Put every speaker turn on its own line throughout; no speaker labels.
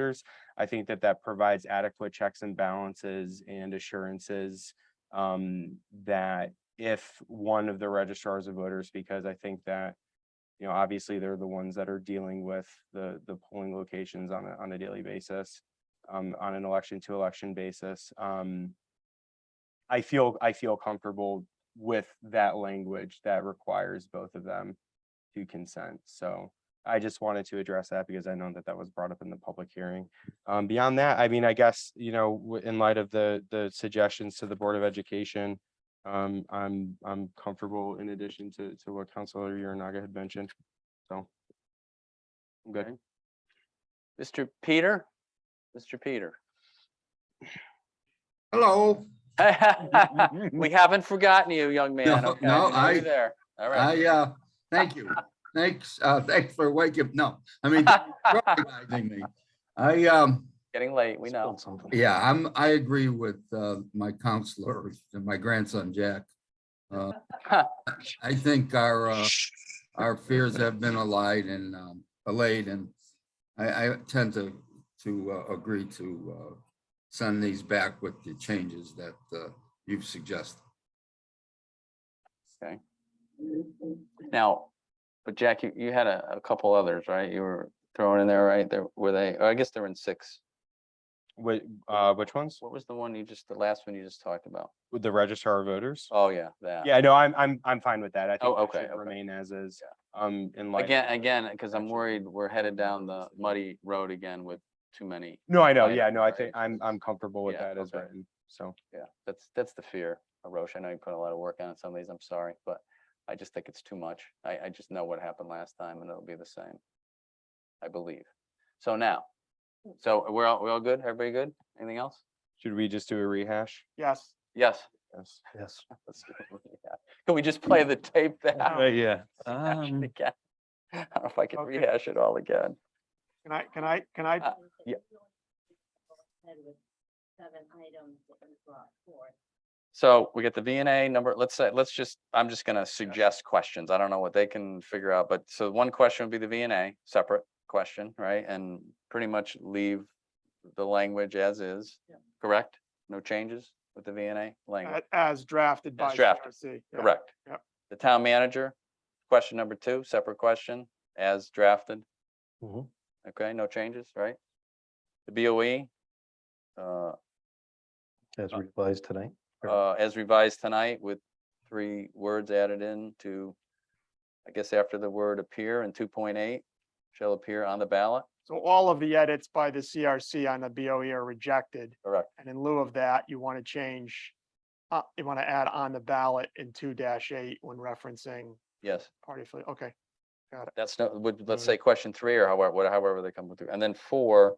years. I think that that provides adequate checks and balances and assurances um, that if one of the registrars of voters, because I think that you know, obviously, they're the ones that are dealing with the the polling locations on a on a daily basis, um, on an election to election basis. Um, I feel, I feel comfortable with that language that requires both of them to consent. So I just wanted to address that because I know that that was brought up in the public hearing. Um, beyond that, I mean, I guess, you know, w- in light of the, the suggestions to the Board of Education, um, I'm, I'm comfortable in addition to, to what Counselor Uranaga had mentioned. So. I'm good.
Okay. Mr. Peter? Mr. Peter?
Hello,
We haven't forgotten you, young man.
No,
Okay,
no,
we know you're
I-
There, all right.
I, uh, thank you. Thanks, uh, thanks for waking, no, I mean, recognizing me. I, um,
Getting late, we know.
yeah, I'm, I agree with, uh, my counselor and my grandson, Jack. Uh, I think our, uh, our fears have been allied and, um, allayed and I, I tend to, to, uh, agree to, uh, send these back with the changes that, uh, you've suggested.
Okay. Now, but Jack, you, you had a, a couple others, right? You were throwing in there, right? There, were they, oh, I guess they're in six.
Wait, uh, which ones?
What was the one you just, the last one you just talked about?
With the registrar of voters?
Oh, yeah, that.
Yeah, no, I'm, I'm, I'm fine with that. I
Oh,
think that
okay,
should
okay.
remain as is, um, in light.
Again, again, because I'm
Actually,
worried we're headed down the muddy road again with too many.
No, I know.
I-
Yeah, no, I
right.
think I'm, I'm comfortable with
Yeah,
that as
okay.
written. So,
Yeah, that's, that's the fear, Roche. I know you put a lot of work on it some of these, I'm sorry, but I just think it's too much. I, I just know what happened last time and it'll be the same. I believe. So now, so we're all, we're all good? Everybody good? Anything else?
should we just do a rehash?
Yes.
Yes.
Yes.
Yes.
let's do it. Yeah. Can we just play the tape
Uh,
that?
yeah.
I don't
Um,
know if I can
okay.
rehash it all again.
Can I, can I, can I,
Uh, yeah.
Seven items that we brought forth.
So we get the V and A number, let's say, let's just, I'm just gonna suggest questions. I don't know what they can figure out, but so one question would be the V and A, separate question, right? And pretty much leave the language as is,
Yeah.
correct? No changes with the V and A
a-
language,
as drafted by
drafted,
CRC? Uh, yeah.
correct?
Yep.
The town manager, question number two, separate question, as drafted.
Mm-hmm.
Mhm.
Okay, no changes, right? The BOE, uh,
As revised tonight. Correct.
uh, as revised tonight with three words added in to, I guess after the word appear in two point eight, shall appear on the ballot.
So all of the edits by the CRC on the BOE are rejected.
Correct.
And in lieu of that, you want to change, uh, you want to add on the ballot in two dash eight when referencing
Yes,
party affiliate. Okay,
that's no, would, let's
Mhm.
say question three or however, what- however they come through. And then four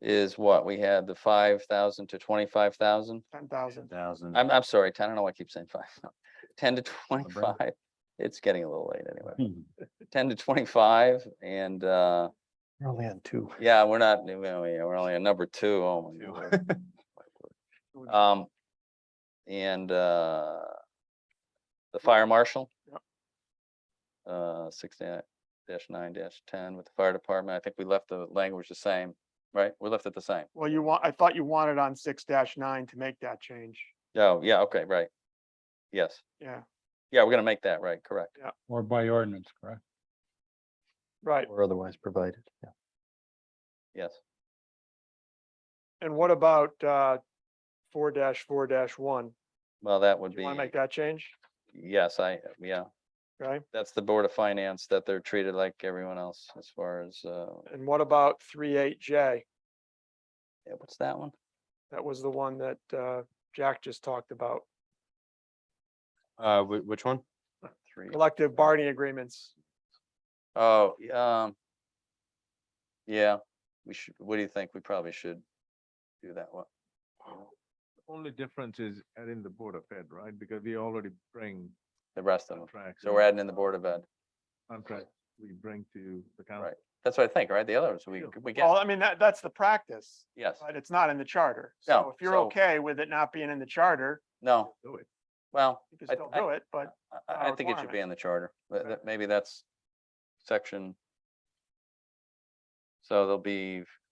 is what? We had the five thousand to twenty-five thousand.
ten thousand.
Thousand.
I'm, I'm sorry, ten, I don't know why I keep saying five. Ten to twenty-five. It's getting a little late anyway. Ten to twenty-five and, uh,
We're only on two.
Yeah, we're not, we- we- we're only at number two. Oh my lord. My word. Um, and, uh, the fire marshal.
Yep.
Uh, six da- dash nine dash ten with the fire department. I think we left the language the same, right? We left it the same.
Well, you want, I thought you wanted on six dash nine to make that change.
Oh, yeah, okay, right. Yes.
Yeah,
Yeah, we're gonna make that right, correct.
Or by ordinance, correct?
right.
Or otherwise provided, yeah.
Yes.
And what about, uh, four dash four dash one?
Well, that would
Do you
be,
want to make that change?
yes, I, yeah,
Okay.
that's the Board of Finance that they're treated like everyone else as far as, uh,
And what about three eight J?
yeah, what's that one?
That was the one that uh, Jack just talked about,
Uh, whi- which one?
Uh,
Three.
collective bargaining agreements.
Oh, y- um. Yeah, we should, what do you think? We probably should do that one.
Only difference is adding the Board of Ed, right? Because we already bring
the rest of them.
contracts.
So we're adding in the Board of Ed.
Contracts we bring to the
Right.
council.
That's what I think, right? The others, we,
Sure.
we
Well,
get,
I mean, that, that's the practice,
yes,
but it's not in the charter.
No,
So if you're
so-
okay with it not being in the charter,
no,
Do it.
well,
you can
I-
still
I-
do it, but
I-
not
I,
a
I think it should be
requirement.
in the charter, but
Okay.
that, maybe that's section So there'll be